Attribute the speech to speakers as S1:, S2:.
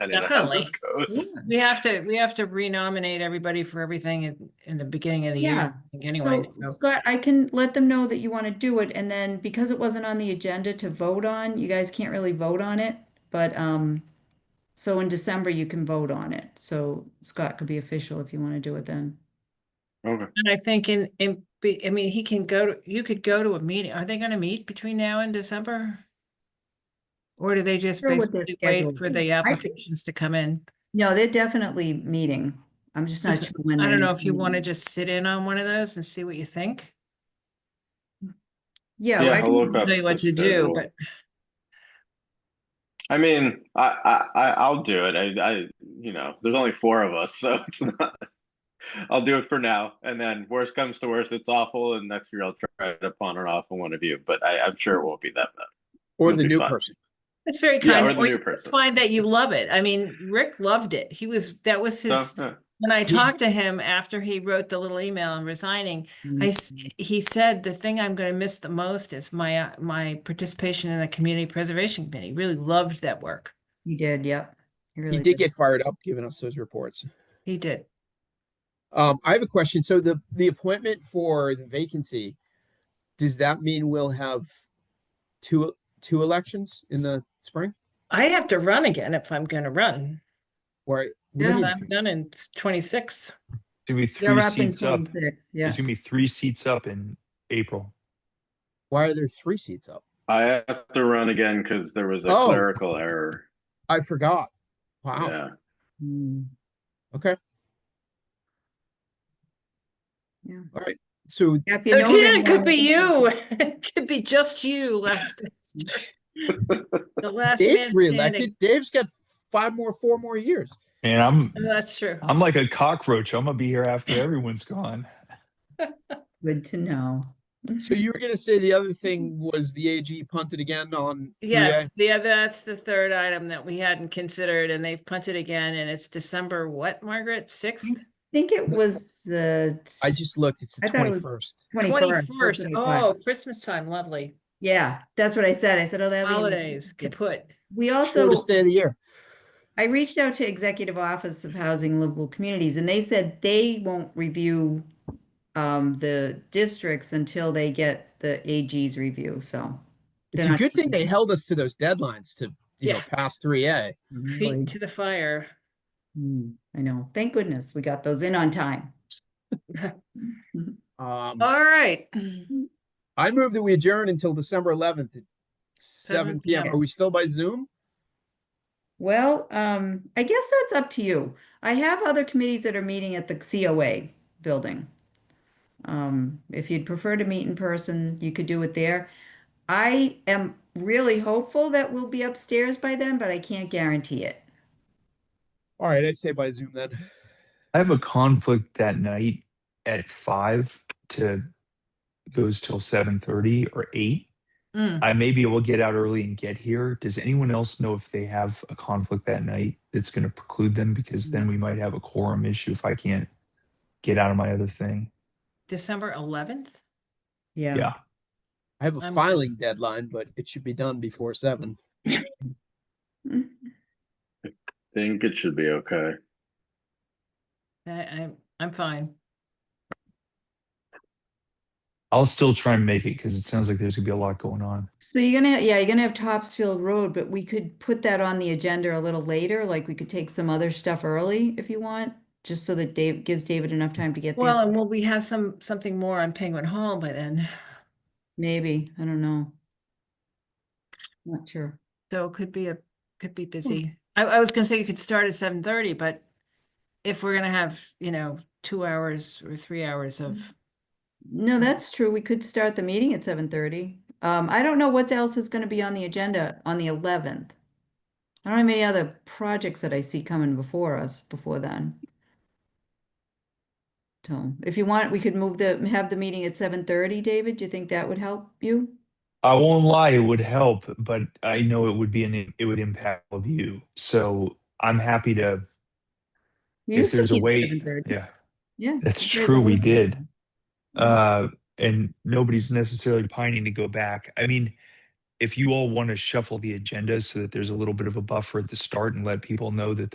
S1: I don't know how
S2: Definitely.
S1: this
S3: Mm-hmm.
S1: goes.
S2: We have to, we have to renominate everybody for everything in, in the beginning of the
S3: Yeah,
S2: year. I think, Anyway,
S3: So
S2: so-
S3: Scott, I can let them know that you want to do it, and then because it wasn't on the agenda to vote on, you guys can't really vote on it, but, um, so in December you can vote on it, so Scott could be official if you want to do it then.
S1: Okay.
S2: and I think in, in, be- I mean, he can go, to you could go to a meeting. Are they gonna meet between now and December? Or do they just
S3: Sure, what their
S2: basically wait
S3: schedule
S2: for
S3: is.
S2: the
S3: I think-
S2: applications to come in?
S3: No, they're definitely meeting. I'm just not sure when.
S2: I
S3: they're
S2: don't know if you wanna
S3: meeting.
S2: just sit in on one of those and see what you think.
S3: Yeah,
S1: Yeah,
S3: I
S1: I'll
S3: can,
S1: look up
S2: Tell you what
S1: the
S2: to do,
S1: schedule.
S2: but
S1: I mean, I, I, I- I'll do it. I, I, you know, there's only four of us, so it's not. I'll do it for now, and then worst comes to worst, it's awful, and next year I'll try it upon and off on one of you. But I, I'm sure it won't be that bad.
S4: Or
S1: It'll
S4: the
S1: be
S4: new
S1: fun.
S4: person.
S2: it's very
S1: Yeah,
S2: kind.
S1: or the
S2: or
S1: new
S2: you just
S1: person.
S2: Find that you love it. I mean, Rick loved it. He was, that was his,
S1: So, yeah.
S2: when I talked to him after he wrote the little email and resigning,
S3: Mm-hmm.
S2: I, s- he said, the thing I'm gonna miss the most is my, uh, my participation in the Community Preservation Committee, really loved that work.
S3: he did, yep.
S4: He
S3: really
S4: did get fired up giving us those reports.
S2: He did.
S4: Um, I have a question. So the, the appointment for the vacancy, does that mean we'll have two, two elections in the spring?
S2: I have to run again if I'm gonna run,
S4: Or? what
S3: Yeah.
S4: is
S2: because
S4: it?
S2: I'm done in twenty-six.
S5: to be
S3: They're
S5: three
S3: up in
S5: seats up.
S3: twenty-six, yeah.
S5: There's gonna be three seats up in April.
S4: Why are there three seats up?
S1: I have to run again because there was a
S4: Oh.
S1: clerical error.
S4: I forgot. Wow.
S1: Yeah.
S3: Mm.
S4: Okay.
S3: Yeah.
S4: All right. So
S3: Yeah, if you know
S2: Again,
S3: they
S2: it could
S3: want
S2: be
S3: it,
S2: you, it could be just you left. The last man
S4: Dave's
S2: standing.
S4: reelected. Dave's got five more, four more years.
S5: And I'm
S2: Oh, That's true.
S5: I'm like a cockroach. I'm gonna be here after everyone's gone.
S3: Good to know.
S4: So you were gonna say the other thing was the AG punted again on? 3A?
S2: Yes, the other, that's the third item that we hadn't considered and they've punted again and it's December what, Margaret? Sixth?
S3: I think it was the
S4: I just looked. It's the
S3: I thought it was-
S4: twenty-first.
S3: twenty-first. that's
S2: Twenty-first.
S3: what I
S2: Oh,
S3: thought.
S2: Christmas time, lovely.
S3: Yeah, that's what I said. I said, oh, that'll be. in the-
S2: Holidays, kaput.
S3: We also,
S4: Shortest day of the year.
S3: I reached out to Executive Office of Housing and Livable Communities and they said they won't review um, the districts until they get the AG's review, so.
S4: It's
S3: they're
S4: a
S3: not
S4: good thing they
S3: doing
S4: held us to those deadlines to, you
S2: Yeah.
S4: know,
S2: Mm-hmm.
S4: pass three A.
S3: it.
S2: Feet to the fire.
S3: Mm, I know. Thank goodness we got those in on time.
S4: Um,
S2: All right.
S4: I move that we adjourn until December eleventh at seven
S2: 7
S4: PM.
S2: p.m.
S4: Are we still by Zoom?
S3: Well, um, I guess that's up to you. I have other committees that are meeting at the COA building. Um, if you'd prefer to meet in person, you could do it there. I am really hopeful that we'll be upstairs by then, but I can't guarantee it.
S4: All right, I'd say by Zoom then.
S5: I have a conflict that night at five to goes till seven thirty or eight.
S2: Mm.
S5: I may be able to get out early and get here. Does anyone else know if they have a conflict that night that's gonna preclude them? Because then we might have a quorum issue if I can't get out of my other thing.
S2: December eleventh?
S3: Yeah.
S5: Yeah.
S4: I have a
S2: I'm-
S4: filing deadline, but it should be done before seven.
S3: Mm-hmm.
S1: Think it should be okay.
S2: I, I'm, I'm fine.
S5: I'll still try and make it because it sounds like there's gonna be a lot going on.
S3: So you're gonna, yeah, you're gonna have Topsfield Road, but we could put that on the agenda a little later. Like we could take some other stuff early if you want, just so that Dave gives David enough time to get there.
S2: Well, and will we have some, something more on Penguin Hall by then?
S3: Maybe, I don't know. Not sure.
S2: So it could be a, could be busy. I, I was gonna say you could start at seven thirty, but if we're gonna have, you know, two hours or three hours of,
S3: No,
S5: Hmm.
S3: that's true. We could start the meeting at seven thirty. Um, I don't know what else is gonna be on the agenda on the eleventh. I don't have any other projects that I see coming before us before then. So if you want, we could move the, have the meeting at seven thirty, David. Do you think that would help you?
S5: I won't lie, it would help, but I know it would be an it would impact all of you. So I'm happy to
S3: We
S5: if
S3: used to
S5: there's
S3: meet
S5: a
S3: at
S5: way.
S3: 7:30.
S5: Yeah.
S3: Yeah.
S5: That's
S3: we did,
S5: true,
S3: that
S5: we
S3: was-
S5: did. Uh and nobody's necessarily pining to go back. I mean, if you all want to shuffle the agenda so that there's a little bit of a buffer at the start and let people know that